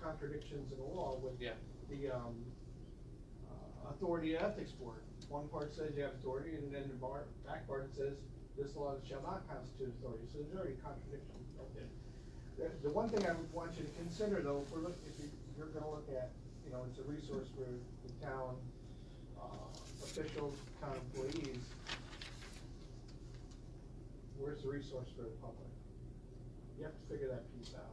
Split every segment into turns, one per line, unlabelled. contradictions in the law with
Yeah.
the, um, uh, authority of ethics board. One part says you have authority, and then the bar, back part says this law shall not constitute authority, so there's already contradiction. The, the one thing I would want you to consider though, if we're, look- if you, you're gonna look at, you know, it's a resource for the town, uh, officials, town employees. Where's the resource for the public? You have to figure that piece out.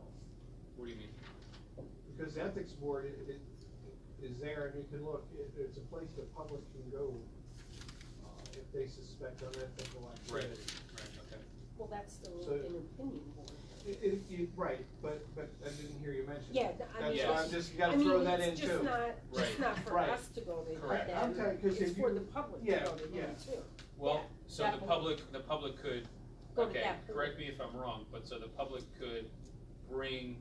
What do you mean?
Because the ethics board i- i- is there and you can look, it, it's a place the public can go, uh, if they suspect unethical
Right,
activity.
right, okay.
Well, that's still
So-
an opinion board.
It, it, you, right, but, but I didn't hear you mention.
Yeah,
that.
I mean.
That's why I'm just, you gotta
I mean,
throw that in
it's just
too.
not,
Right.
just not for
Right.
us to go to
Correct.
I'm telling you,
them,
'cause
it's
if you-
for the public to
yeah,
go to
yeah.
them too.
Well,
Yeah,
so
that
the
one.
public, the public could,
Go to
okay,
that pool.
correct me if I'm wrong, but so the public could bring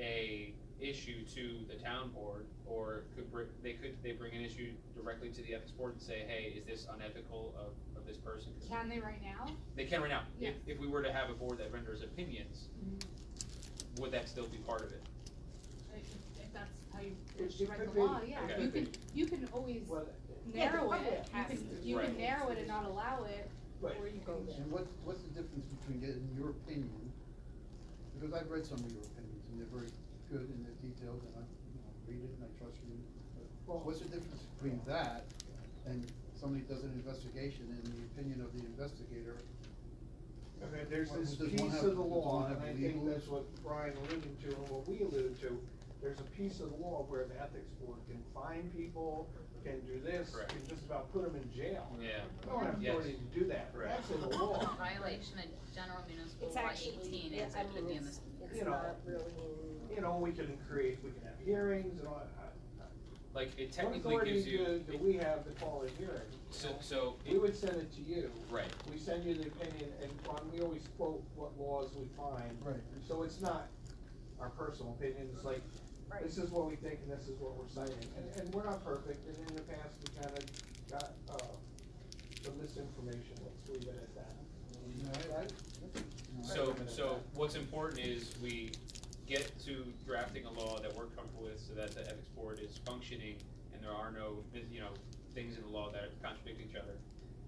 a issue to the town board, or could bring, they could, they bring an issue directly to the ethics board and say, hey, is this unethical of, of this person? 'Cause
Can they right now?
They can right now, if,
Yes.
if we were to have a board that renders opinions,
Mm-hmm.
would that still be part of it?
If, if that's how you
It- it could
write
be.
the law, yeah,
Okay.
you can, you can always
Well,
Yeah, the
narrow
public
it, you
has
can,
to.
you
Right.
can narrow it and not allow it,
Right.
or you
Go
can,
there.
And what's, what's the difference between getting your opinion, because I've read some of your opinions, and they're very good and they're detailed, and I, you know, read it and I trust you.
Well-
But What's the difference between that and somebody does an investigation and the opinion of the investigator?
Okay, there's
Well,
this
does one
piece
have-
of the
does
law,
one
and
have
I think
legal-
that's what Brian alluded to and what we alluded to. There's a piece of the law where the ethics board can fine people, can do this,
Correct.
can just about put them in jail.
Yeah.
We don't have
Yes.
authority to do that,
Correct.
that's in the law.
Violation of general municipal
It's
law
actually,
eighteen,
yeah,
is
I
it could be
mean,
in
it's,
this.
it's
You know.
not really.
You know, we can create, we can have hearings and all that.
Like, it
What
technically gives you.
authority do- do we have to call a hearing? you
So,
know?
so, it-
We would send it to you.
right,
We send you the opinion, and Ron, we always quote what laws we find.
Right.
So it's not our personal opinion, it's like, this is what we think and this is what we're citing, and, and we're not perfect, and in the past, we kinda got, uh, some misinformation, let's leave it at that.
You know, I- I- you know, I
So,
recommend
so
that.
what's important is we get to drafting a law that we're comfortable with so that the ethics board is functioning and there are no, you know, things in the law that contradict each other.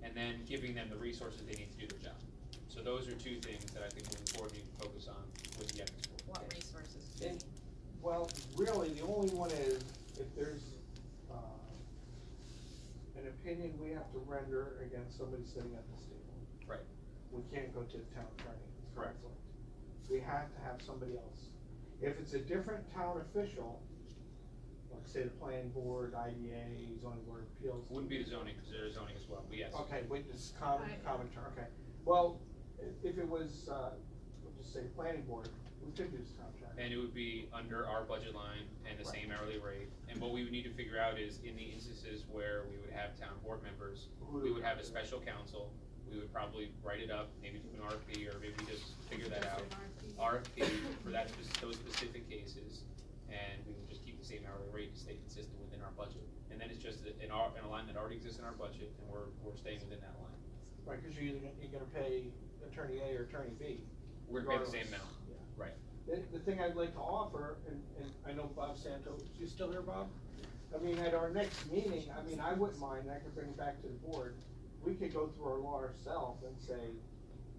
And then giving them the resources they need to do their job. So those are two things that I think moving forward we need to focus on with the ethics board.
What resources? do
Yeah.
we need?
Well, really, the only one is if there's, uh, an opinion we have to render against somebody sitting at this table.
Right.
We can't go to the town attorney. It's
Correct.
conflict. We have to have somebody else. If it's a different town official, like say the planning board, IDA, zoning board of appeals.
Wouldn't be the zoning, because there is zoning as well, but yes.
Okay, witness, common,
Right.
common term, okay. Well, i- if it was, uh, we'll just say planning board, we could use town attorney.
And it would be under our budget line and the same hourly rate. And what we would need to figure out is in the instances where we would have town board members, we would have a special counsel, we would probably write it up, maybe do an RFP, or maybe just figure that out. RFP for that, spec- those specific cases, and we would just keep the same hourly rate to stay consistent within our budget. And then it's just a- an, ar- an line that already exists in our budget, and we're, we're staying within that line.
Right, cause you're either, gonna- you're gonna pay attorney A or attorney B.
We're gonna pay the same
regardless.
amount.
Yeah.
Right.
The, the thing I'd like to offer, and, and I know Bob Santo, you still here, Bob? I mean, at our next meeting, I mean, I wouldn't mind, I could bring it back to the board, we could go through our law ourselves and say,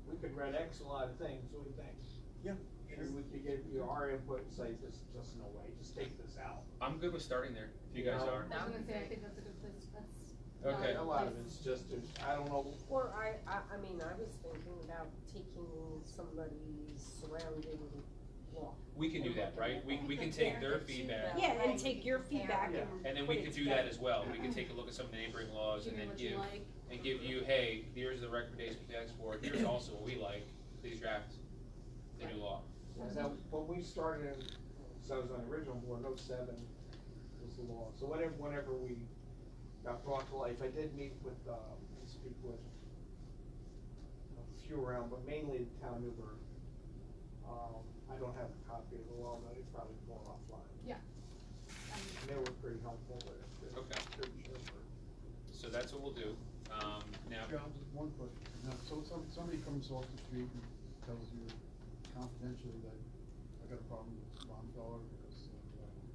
we could read X a lot of things, what do you think? Yeah. And we could give you our input and say, this, just no way, just take this out.
I'm good with starting there, if you guys
Yeah.
are.
I was
That
gonna
would be
say, I
great.
think that's a good place, that's.
Okay.
A lot of it's just, there's- I don't know,
Or I, I, I mean, I was thinking about taking somebody's surrounding law.
We can do that, right? We, we can take their feedback,
Yeah, and take your feedback
Yeah.
and.
and then we
put
could
it
do that
together.
as well. We could take a look at some of the neighboring laws
Give
and
me
then
what
give,
you like.
and give you, hey, here's the recommendation for the ethics board, here's also what we like, please draft the new law.
And then when we started, so I was on the original board, oh seven was the law, so whenever, whenever we got brought to life, I did meet with, um, and speak with a few around, but mainly the town of Newburgh. Um, I don't have a copy of the law, but it's probably going offline.
Yeah. Um,
And They were pretty helpful with it.
Okay. So that's what we'll do. Um, now,
Joe, just one question. Now, so some, somebody comes off the street and tells you confidentially that I got a problem with Ron Feller, uh,